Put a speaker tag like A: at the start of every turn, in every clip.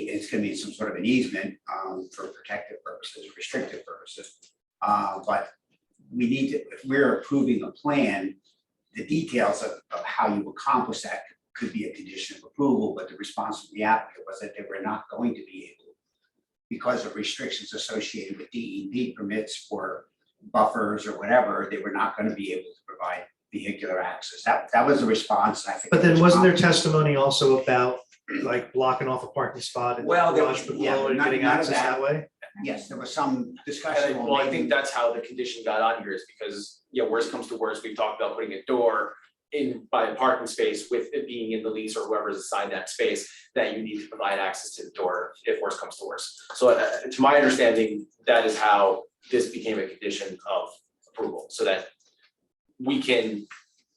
A: it's gonna be some sort of an easement, um, for protective purposes, restrictive purposes. Uh, but we need to, if we're approving a plan, the details of, of how you accomplish that could be a condition of approval, but the response from the applicant was that they were not going to be able because of restrictions associated with DEP permits or buffers or whatever, they were not gonna be able to provide vehicular access. That, that was the response, and I think.
B: But then
A: the
B: wasn't there
A: response-
B: testimony also about like blocking off a parking spot and
A: Well, there
B: garage
A: was- yeah,
B: below and
A: not-
B: getting
A: none of
B: access
A: that.
B: that way?
A: Yes, there was some
C: And
A: discussion.
C: I, well, I think that's how the condition got on here is because, yeah, worst comes to worst, we've talked about putting a door in by a parking space with it being in the lease or whoever's assigned that space, that you need to provide access to the door if worst comes to worst. So uh, to my understanding, that is how this became a condition of approval, so that we can,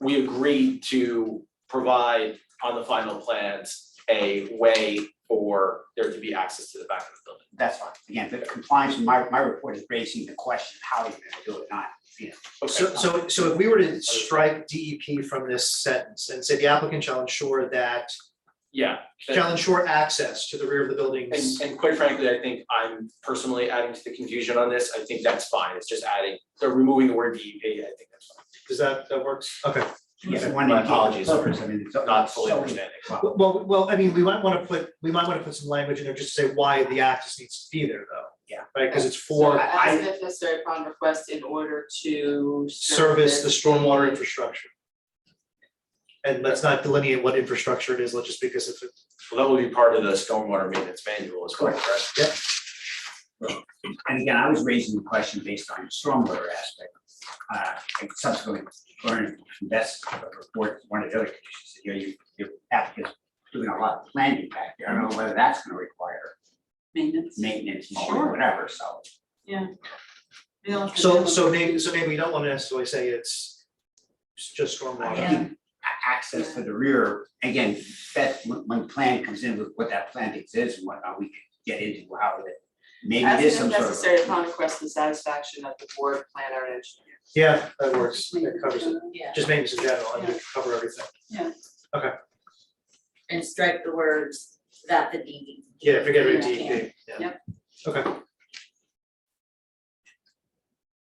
C: we agreed to provide on the final plans a way for there to be access to the back of the building.
A: That's fine. Again, the compliance, my, my report is raising the question, how are you gonna do it, not, you know.
B: So, so, so if we were to strike DEP from this sentence and say the applicant shall ensure that,
C: Yeah,
B: shall ensure access to the rear of the buildings.
C: And and quite frankly, I think I'm personally adding to the confusion on this, I think that's fine, it's just adding, they're removing the word DEP, I think that's fine.
B: Does that, that works? Okay.
A: Yes,
B: Okay.
A: one
C: My
A: of the
C: apologies.
A: purpose, I mean, it's
C: Not fully
A: so-
C: understanding.
A: Well,
B: Well, well, I mean, we might want to put, we might want to put some language in there just to say why the access needs to be there though.
A: Yeah.
B: Right, because it's
D: So
B: for
D: as necessary upon request in order to.
B: service the stormwater infrastructure. And let's not delineate what infrastructure it is, let's just because if it
C: Well, that will be part of the stormwater maintenance manual as well, correct?
A: And again, I was raising the question based on the stormwater aspect. Uh, and subsequently, learned from Beth's report, one of the other conditions, that, you know, you, your applicant's doing a lot of planning back there. I don't know whether that's gonna require
D: Maintenance.
A: maintenance
D: Sure.
A: or whatever, so.
D: We don't have to
B: So,
D: do
B: so
D: it.
B: maybe, so maybe we don't want to necessarily say it's it's just
A: I
B: stormwater.
A: think a- access to the rear, again, that, when, when plan comes in with what that plan is and whatnot, we could get into how it. Maybe it is
D: As
A: some sort
D: necessary
A: of.
D: upon request and satisfaction of the board planner and engineer.
B: Yeah, that works, that covers it,
E: Yeah,
B: just maintenance in general, and we cover everything.
E: and strike the words that the DEP.
B: Yeah, forget about
E: Yeah.
B: DEP, E yeah.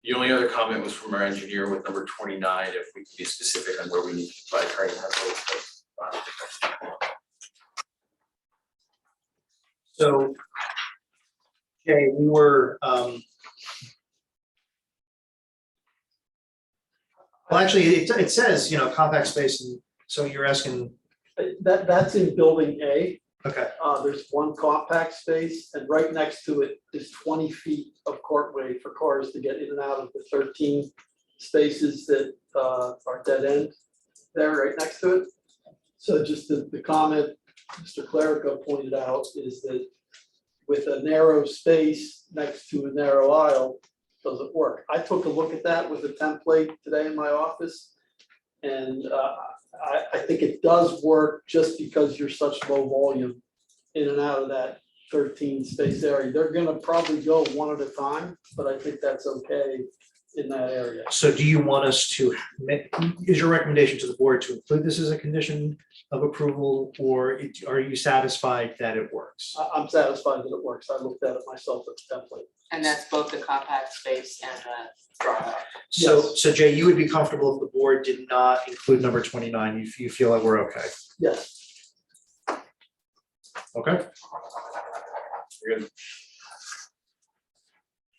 C: The only other comment was from our engineer with number twenty-nine, if we can be specific on where we need to apply training.
B: So, okay, we were, um. Well, actually, it, it says, you know, compact space, and so you're asking,
F: Uh, That, that's in building A.
B: okay,
F: Uh, there's one compact space and right next to it is twenty feet of courtway for cars to get in and out of the thirteen spaces that, uh, are dead end there right next to it. So just the, the comment Mr. Clerico pointed out is that with a narrow space next to a narrow aisle, doesn't work. I took a look at that with a template today in my office. And, uh, I, I think it does work just because you're such low volume in and out of that thirteen space area. They're gonna probably go one at a time, but I think that's okay in that area.
B: so do you want us to, ma- is your recommendation to the board to include this as a condition of approval, or it- are you satisfied that it works?
F: I, I'm satisfied that it works. I looked at it myself at the template.
D: And that's both the compact space and the drive.
B: So,
F: Yes.
B: so Jay, you would be comfortable if the board did not include number twenty-nine, you, you feel like we're okay,
F: Yes,
B: okay?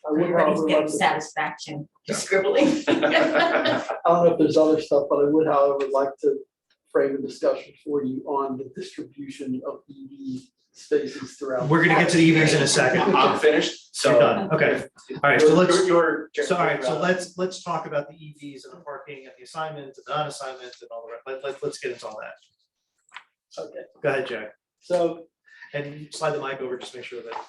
F: I would
E: Everybody's
F: however like
E: getting
F: to,
E: satisfaction, scribbling.
F: I don't know if there's other stuff, but I would however like to frame a discussion for you on the distribution of EV spaces throughout.
B: We're gonna get to the EVs in a second,
C: I'm finished, so.
B: you're done, okay, all right, so let's.
C: Your.
B: So, all right, so let's, let's talk about the EVs and the parking and the assignment, the non-assignment and all the rest, let, let, let's get into all that.
F: Okay,
B: Go ahead, Jay,
F: so
B: and slide the mic over, just make sure that.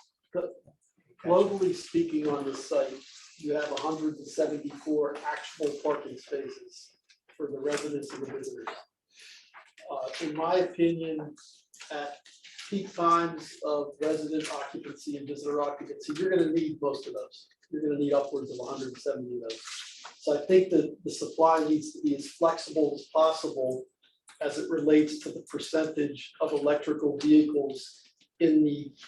F: Globally speaking on this site, you have hundred and seventy-four actual parking spaces for the residents and the visitors. Uh, in my opinion, at peak times of resident occupancy and visitor occupancy, you're gonna need most of those. You're gonna need upwards of hundred and seventy of those. So I think that the supply needs to be as flexible as possible as it relates to the percentage of electrical vehicles in the